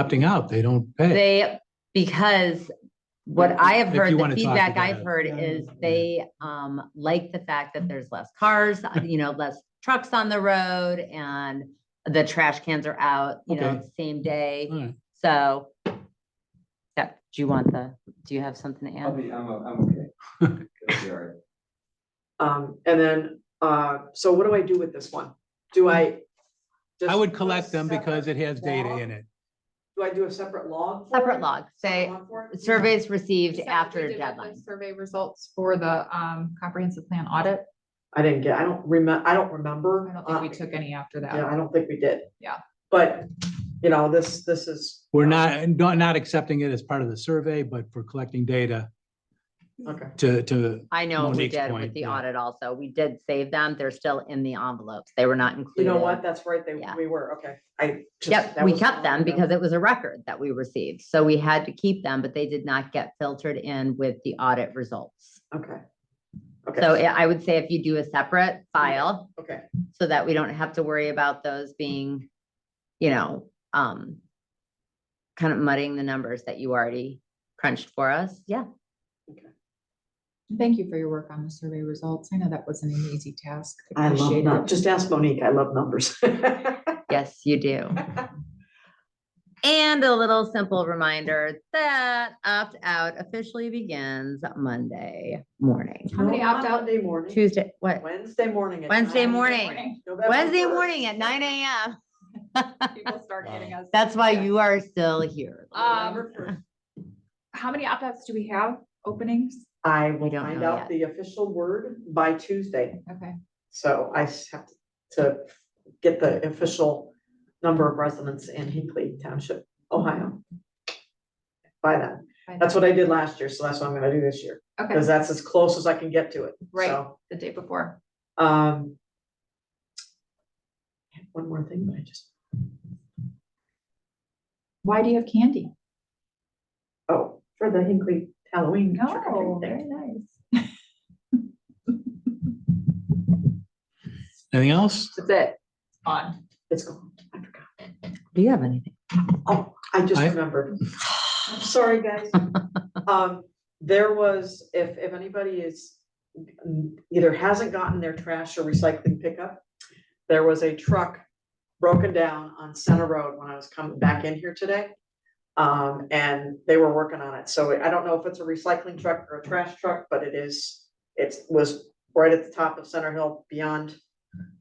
opting out, they don't pay. They, because what If- I have if heard, you the wanna talk feedback about I've it. heard is they um like the fact that there's less cars, uh, you know, less trucks on the road and the trash cans are out, you know, Okay. the same day. All right. So yeah, do you want the, do you have something to I'll add? be, I'm, o- I'm okay. It'll be all right. Um, and then, uh, so what do I do with this one? Do I? just I do would a collect them because separate it has data log? in it. Do I do a separate log? for Separate it? log, say Log for it? surveys received Just like we after did with the deadline. Survey results for the um comprehensive plan audit. I didn't get, I don't remember, I don't remember. I don't think we uh, took any after Yeah, that. I don't think we did. Yeah. But, you know, this, this is. We're not, not, not accepting it as part of the survey, but for collecting data Okay, to, to, I know we Monique's did point, with the yeah. audit also. We did save them. They're still in the envelopes. They were not you included. know what? That's right, they, Yeah. we were, okay, I. just- Yep, that we was- kept them because it was a record that we received. So we had to keep them, but they did not get filtered in with the audit results. Okay. So Okay, I I would say if you do a separate Mm-hmm. file okay, so that we don't have to worry about those being, you know, um, kind of muddying the numbers that you already crunched for us. Yeah, Thank you for your work on the survey results. I know that wasn't an easy task. I love, Appreciate num- it. just ask Monique, I love numbers. yes, you do. And a little simple reminder that opt-out officially begins Monday morning, How many Not opt out? Monday morning, Tuesday, what? Wednesday morning. at Wednesday 9 morning. November Wednesday 1st. morning at nine AM. People start hitting us. That's why Yeah. you are still here. Uh, Um, How many opt outs do we have? Openings? I will don't find know out yet. the official word by Tuesday, Okay. so I s- have to get the official number of residents in Hinkley Township, Ohio. By then, By that's then. what I did last year, so that's what I'm gonna do this year, because Okay, that's as close as I can get to it, Right. so, the day before. um. I had One more thing, but I just, Why do you have candy? oh, for the Hinkley Halloween. trick or treat Oh, thing. nice. anything else? That's it. On. It's gone, I forgot. Do you have anything? Oh, I just I- remembered. I'm sorry, guys. Um, there was, if, if anybody is mm, either hasn't gotten their trash or recycling pickup, there was a truck broken down on Center Road when I was coming back in here today. Um, and they were working on it. So I don't know if it's a recycling truck or a trash truck, but it is, it was right at the top of Center Hill beyond,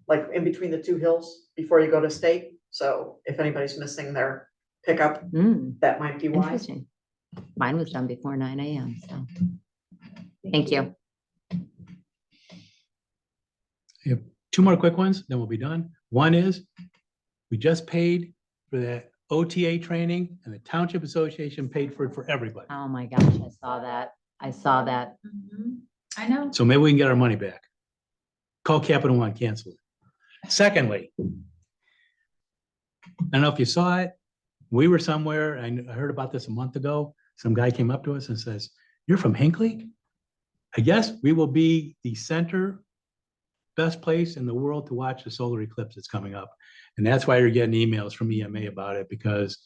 like in between the two hills before you go to state. So if anybody's missing their pickup, Hmm, that might be why. interesting. Mine was done before nine AM, so thank you. Two more quick ones, then we'll be done. One is, we just paid for that OTA training and the Township Association paid for it for everybody. Oh my gosh, I saw that. I saw that. Mhm. I know. So maybe we can get our money back. Call Capital One, cancel it. Secondly, I don't know if you saw it, we were somewhere, I kn- I heard about this a month ago. Some guy came up to us and says, you're from Hinkley? I guess we will be the center, best place in the world to watch the solar eclipse that's coming up. And that's why you're getting emails from EMA about it, because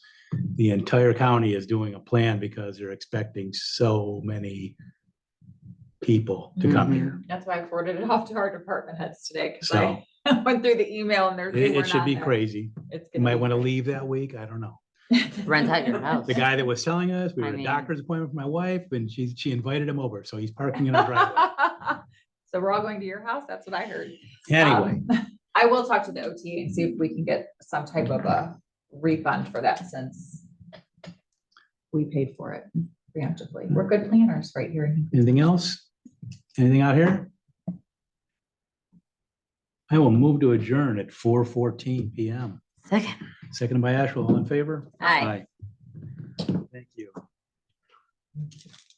the entire county is doing a plan because they're expecting so many people to come Mm-hmm. here. Mm-hmm. That's why I forwarded it off to our department heads today, because So- I went through the email and there's. It, it should be crazy. It's You gonna might be want to great. leave that week. I don't know. Rent out your house. The guy that was selling us, we I were at a mean- doctor's appointment for my wife and she, she invited him over. So he's parking in our driveway. So we're all going to your house? That's what I heard. Anyway, Um, I will talk to the OT and see if we can get some type of a refund for that since we paid for it preemptively. We're good planners right here. anything else? Anything out here? I will move to adjourn at four fourteen PM. Second. Seconded by Ashwell, all in favor? Aye. Aye. Thank you.